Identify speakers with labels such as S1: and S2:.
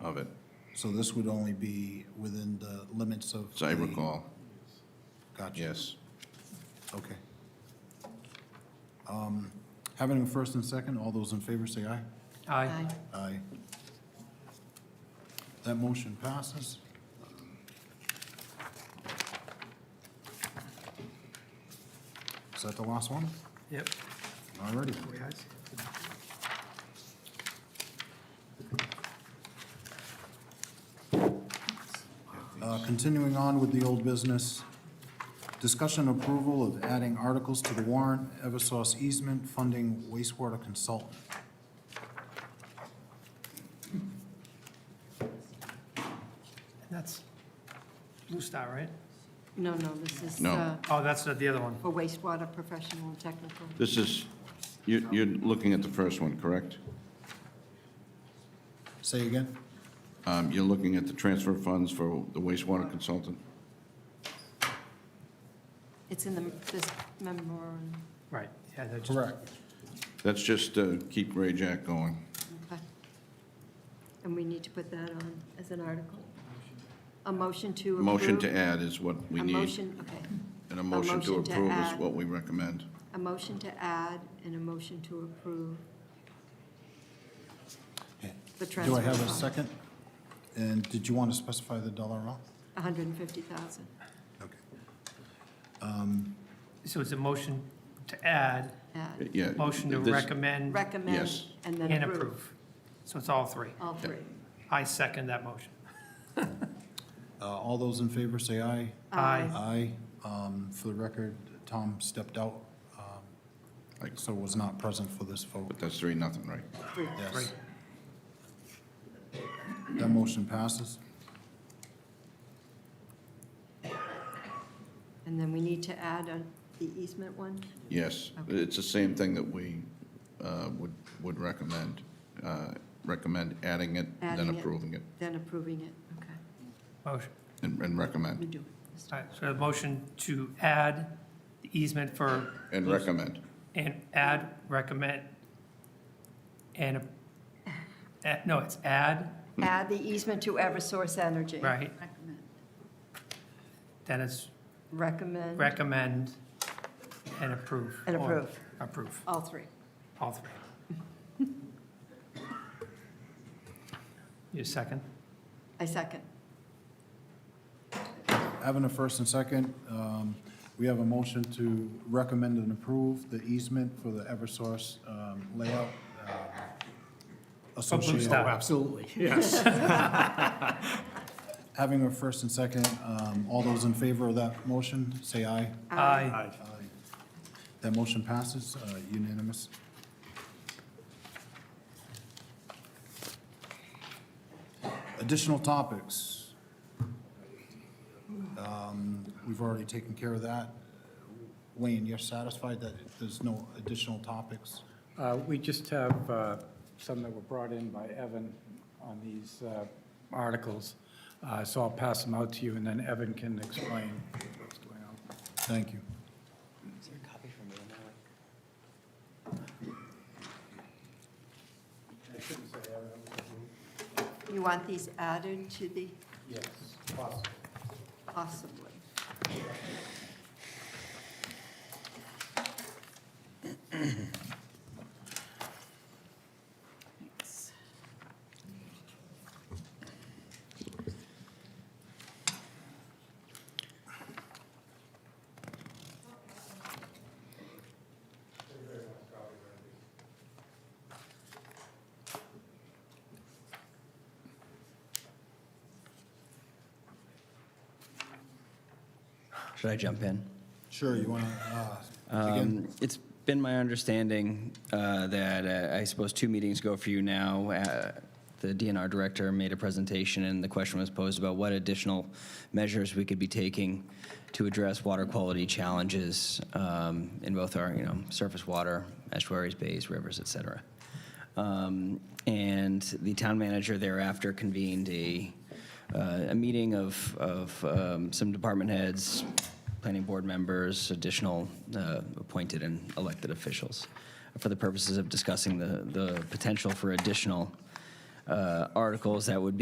S1: of it,
S2: So this would only be within the limits of.
S1: as I
S2: the-
S1: recall,
S2: Gotcha.
S1: yes.
S2: Okay. Um, Having a first and second, all those in favor say aye.
S3: Aye.
S2: Aye. That motion passes. Is that the last one?
S3: Yep.
S2: All righty. Uh, Continuing on with the old business, discussion approval of adding articles to the warrant, Eversource easement funding wastewater consultant.
S3: That's Blue Star, right?
S4: No, no, this is
S1: No.
S4: uh,
S3: Oh, that's the the other one.
S4: for wastewater professional and technical.
S1: This is, you, you're looking at the first one, correct?
S2: Say again?
S1: Um, you're looking at the transfer funds for the wastewater consultant?
S4: It's in the, this memorandum.
S3: Right, yeah, they're just.
S2: Correct.
S1: That's just to keep Ray Jack going.
S4: Okay. And we need to put that on as an article. A motion to approve.
S1: Motion to add is what we
S4: A
S1: need,
S4: motion, okay.
S1: and a motion to
S4: motion to
S1: approve is
S4: add.
S1: what we recommend.
S4: A motion to add and a motion to approve the transfer.
S2: Do I have a
S4: fund,
S2: second? And did you want to specify the dollar amount?
S4: 150,000.
S2: Okay.
S3: So it's a motion to add,
S4: Add,
S1: Yeah.
S3: motion to
S1: this-
S3: recommend
S4: recommend,
S1: Yes.
S4: and then
S3: and
S4: approve.
S3: approve. So it's all three.
S4: All three.
S3: I second that motion.
S2: Uh, All those in favor say aye.
S3: Aye.
S2: Aye. Um, For the record, Tom stepped out, um,
S1: Aye.
S2: so was not present for this vote.
S1: But that's three, nothing, right?
S4: Three.
S2: Yes. That motion passes.
S4: And then we need to add on the easement one?
S1: Yes,
S4: Okay.
S1: it's the same thing that we uh, would, would recommend, uh, recommend adding it, then
S4: Adding it.
S1: approving it,
S4: Then approving it, okay.
S3: Motion.
S1: and and
S4: Let me
S1: recommend,
S4: do it.
S3: All right, so a motion to add the easement for,
S1: and recommend.
S3: and add, recommend, and, uh, no, it's add,
S4: Add the easement to Eversource Energy.
S3: right?
S4: Recommend.
S3: Then it's
S4: Recommend,
S3: recommend and approve.
S4: And
S3: or
S4: approve.
S3: Approve,
S4: all three.
S3: all three. You second?
S4: I second.
S2: Having a first and second, um, we have a motion to recommend and approve the easement for the Eversource um, layout. uh, associated-
S3: Star.
S5: Absolutely, yes.
S2: Having a first and second, um, all those in favor of that motion, say aye. Uh,
S3: Aye.
S2: That motion passes uh, unanimous. Additional topics. Um, We've already taken care of that. Wayne, you're satisfied that there's no additional topics?
S5: Uh, We just have uh, some that were brought in by Evan on these uh, articles, Uh, so I'll pass them out to you, and then Evan can explain what's going on.
S2: Thank you.
S6: Is there a copy for me? I'm not-
S4: You want these added to the,
S5: Yes,
S4: possibly? Thanks.
S7: Should I jump in?
S2: Sure, you uh, want to, again,
S7: Um, It's been my understanding uh, that, uh, I suppose, two meetings ago for you now, uh, the DNR director made a presentation, and the question was posed about what additional measures we could be taking to address water quality challenges um, in both our, you know, surface water, estuaries, bays, rivers, et cetera. Um, And the town manager thereafter convened a, uh, a meeting of, of um, some department heads, planning board members, additional uh, appointed and elected officials, for the purposes of discussing the, the potential for additional uh, articles that would be.